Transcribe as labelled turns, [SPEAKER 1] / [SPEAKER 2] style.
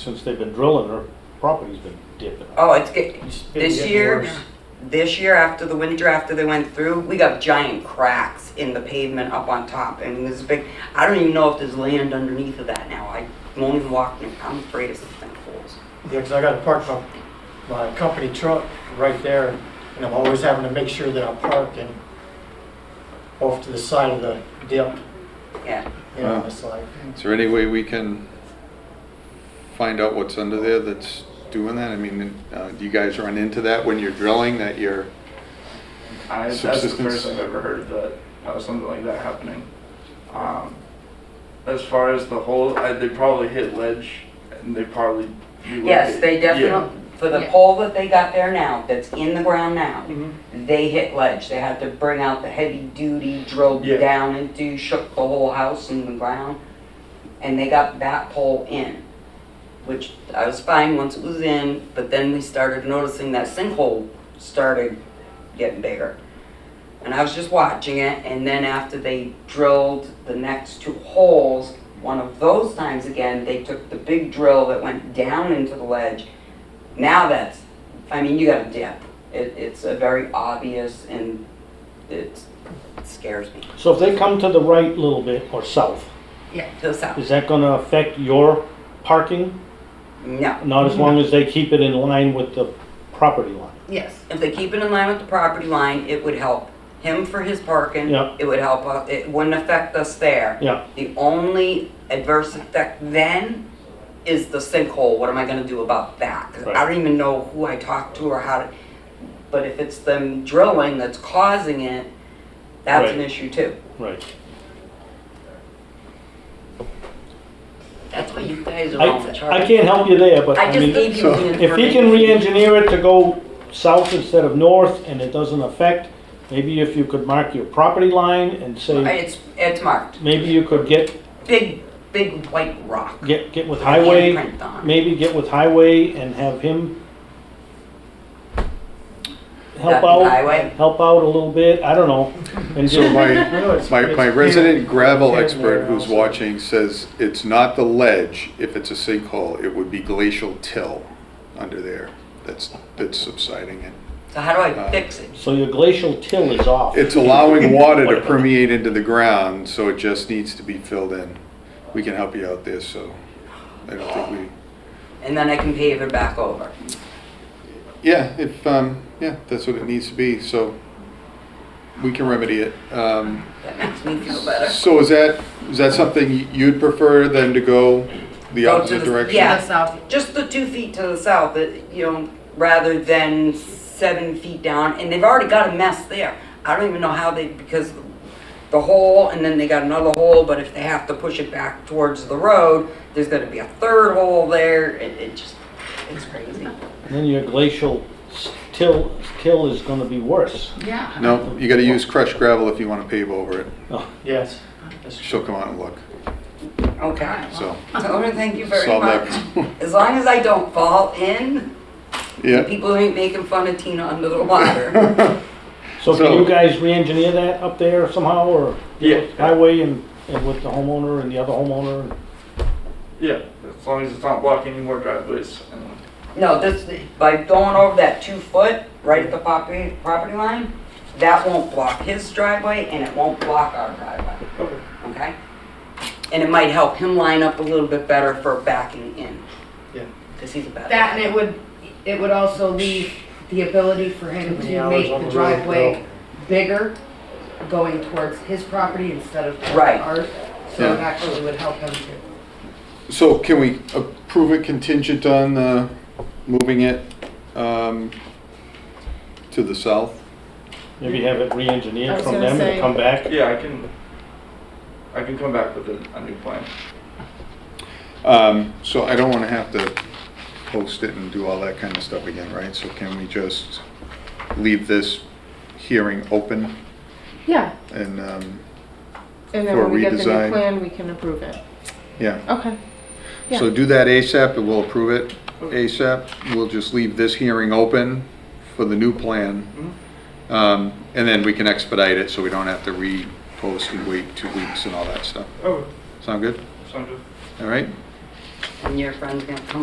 [SPEAKER 1] Since they've been drilling, their property's been dipping.
[SPEAKER 2] Oh, it's get,
[SPEAKER 1] It's been
[SPEAKER 2] this
[SPEAKER 1] getting
[SPEAKER 2] year,
[SPEAKER 1] worse.
[SPEAKER 2] this year after the winter after they went through, we got giant cracks in the pavement up on top, and this big. I don't even know if there's land underneath of that now. I won't even walk. in it. I'm afraid of some potholes.
[SPEAKER 3] Yeah, because I gotta park my, my company truck right there, and I'm always having to make sure that I'm parking off to the side of the dip,
[SPEAKER 2] Yeah.
[SPEAKER 3] you know,
[SPEAKER 4] Wow.
[SPEAKER 3] it's like,
[SPEAKER 4] Is there any way we can find out what's under there that's doing that? I mean, uh, do you guys run into that when you're drilling, that you're,
[SPEAKER 5] I, that's the
[SPEAKER 4] Subsistence.
[SPEAKER 5] first I've ever heard that uh, something like that happening. Um, as far as the hole, I, they probably hit ledge and they probably.
[SPEAKER 2] Yes, they definitely. For the
[SPEAKER 6] Yeah.
[SPEAKER 2] pole that they got there now, that's in the ground now, they hit ledge. They had to bring out the heavy duty, drilled
[SPEAKER 5] Yeah.
[SPEAKER 2] down and do shook the whole house in the ground, and they got that pole in, which I was fine once it was in. But then we started noticing that sinkhole started getting bigger, and I was just watching it. And then after they drilled the next two holes, one of those times again, they took the big drill that went down into the ledge. Now that's, I mean, you got a dip. It, it's a very obvious and it's- it scares me.
[SPEAKER 1] So if they come to the right a little bit or south,
[SPEAKER 2] The sound.
[SPEAKER 1] is that gonna affect your parking?
[SPEAKER 2] No.
[SPEAKER 1] Not as long as they keep it in line with the property line.
[SPEAKER 6] Yes.
[SPEAKER 2] If they keep it in line with the property line, it would help him for his parking.
[SPEAKER 1] Yeah.
[SPEAKER 2] It would help, us- it wouldn't affect us there.
[SPEAKER 1] Yeah.
[SPEAKER 2] The only adverse effect then is the sinkhole. What am I gonna do about that? 'Cause I
[SPEAKER 1] Right.
[SPEAKER 2] don't even know who I talked to or how to, but if it's them drilling that's causing it, that's an
[SPEAKER 1] Right.
[SPEAKER 2] issue too.
[SPEAKER 1] Right.
[SPEAKER 2] That's why you guys are
[SPEAKER 1] I,
[SPEAKER 2] all in charge.
[SPEAKER 1] I can't help you there, but I
[SPEAKER 2] I just
[SPEAKER 1] mean,
[SPEAKER 2] gave you the information.
[SPEAKER 1] if he can re-engineer it to go south instead of north and it doesn't affect, maybe if you could mark your property line and say,
[SPEAKER 2] It's, it's marked.
[SPEAKER 1] maybe you could get,
[SPEAKER 2] Big, big white rock.
[SPEAKER 1] get, get with highway.
[SPEAKER 2] Handprint on.
[SPEAKER 1] maybe get with highway and have him help
[SPEAKER 2] That
[SPEAKER 1] out,
[SPEAKER 2] Highway.
[SPEAKER 1] help out a little bit, I don't know. And
[SPEAKER 4] so
[SPEAKER 1] just,
[SPEAKER 4] my,
[SPEAKER 3] no, it's-
[SPEAKER 4] my,
[SPEAKER 3] it's
[SPEAKER 4] my resident gravel
[SPEAKER 3] Yeah,
[SPEAKER 4] expert
[SPEAKER 3] yeah,
[SPEAKER 4] who's
[SPEAKER 3] also.
[SPEAKER 4] watching says it's not the ledge, if it's a sinkhole, it would be glacial till under there that's, that's subsiding it.
[SPEAKER 2] So how do I
[SPEAKER 4] Uh,
[SPEAKER 2] fix it?
[SPEAKER 1] so your glacial till is off.
[SPEAKER 4] It's allowing water to permeate into the ground, so it just needs to be filled in. We can help you out there, so I don't think we,
[SPEAKER 2] And then I can pave it back over.
[SPEAKER 4] Yeah, if, um, yeah, that's what it needs to be, so we can remedy it. Um,
[SPEAKER 2] That makes me feel better.
[SPEAKER 4] so is that, is that something you'd prefer than to go the
[SPEAKER 2] Go to
[SPEAKER 4] opposite
[SPEAKER 2] the-
[SPEAKER 4] direction?
[SPEAKER 2] Yeah.
[SPEAKER 6] The south.
[SPEAKER 2] Just the two feet to the south, it- you know, rather than seven feet down, and they've already got a mess there. I don't even know how they, because the hole, and then they got another hole, but if they have to push it back towards the road, there's gonna be a third hole there, it, it just, it's crazy.
[SPEAKER 1] Then your glacial s- till, till is gonna be worse.
[SPEAKER 6] Yeah.
[SPEAKER 4] No, you gotta use crushed gravel if you wanna pave over it.
[SPEAKER 1] Uh,
[SPEAKER 3] Yes. that's true.
[SPEAKER 4] She'll come out and look,
[SPEAKER 2] Okay.
[SPEAKER 4] so
[SPEAKER 2] Tony, thank you very
[SPEAKER 4] solve that.
[SPEAKER 2] much.
[SPEAKER 4] problem.
[SPEAKER 2] As long as I don't fall in,
[SPEAKER 4] Yeah.
[SPEAKER 2] people ain't making fun of Tina under the water.
[SPEAKER 1] So can
[SPEAKER 4] So-
[SPEAKER 1] you guys re-engineer that up there somehow, or?
[SPEAKER 5] Yeah.
[SPEAKER 1] Highway and, and with the homeowner and the other homeowner?
[SPEAKER 5] Yeah, as long as it's not blocking any more driveways. And
[SPEAKER 2] No, this, by going over that two foot, right at the property, property line, that won't block his driveway and it won't block our driveway,
[SPEAKER 5] okay.
[SPEAKER 2] okay? And it might help him line up a little bit better for backing in.
[SPEAKER 3] Yeah.
[SPEAKER 2] Cause he's a bad.
[SPEAKER 6] That and it would, it would also leave the ability for
[SPEAKER 3] Too
[SPEAKER 6] him
[SPEAKER 3] many
[SPEAKER 6] to
[SPEAKER 3] hours
[SPEAKER 6] make
[SPEAKER 3] on
[SPEAKER 6] the
[SPEAKER 3] the road,
[SPEAKER 6] driveway bigger going towards his property instead of towards
[SPEAKER 2] Right.
[SPEAKER 6] ours. So it
[SPEAKER 4] Yeah.
[SPEAKER 6] actually would help him to.
[SPEAKER 4] So can we approve it contingent on, uh, moving it, um, to the south?
[SPEAKER 1] Maybe have it
[SPEAKER 6] I
[SPEAKER 1] re-engineered
[SPEAKER 6] was
[SPEAKER 1] from
[SPEAKER 6] gonna
[SPEAKER 1] them and
[SPEAKER 6] say-
[SPEAKER 1] come back?
[SPEAKER 5] Yeah, I can. I can come back with a, a new plan.
[SPEAKER 4] Um, so I don't wanna have to post it and do all that kind of stuff again, right? So can we just leave this hearing open
[SPEAKER 7] Yeah,
[SPEAKER 4] and, um,
[SPEAKER 7] and then
[SPEAKER 4] For
[SPEAKER 7] when we get the
[SPEAKER 4] redesign.
[SPEAKER 7] new plan, we can approve it.
[SPEAKER 4] yeah.
[SPEAKER 7] Okay.
[SPEAKER 4] So
[SPEAKER 7] Yeah.
[SPEAKER 4] do that ASAP and we'll approve it ASAP. We'll just leave this hearing open for the new plan. Um, and then we can expedite it so we don't have to repost and wait two weeks and all that stuff.
[SPEAKER 5] Okay,
[SPEAKER 4] Sound Oh, good?
[SPEAKER 5] sounds good.
[SPEAKER 4] All right?
[SPEAKER 2] And your friend's gonna come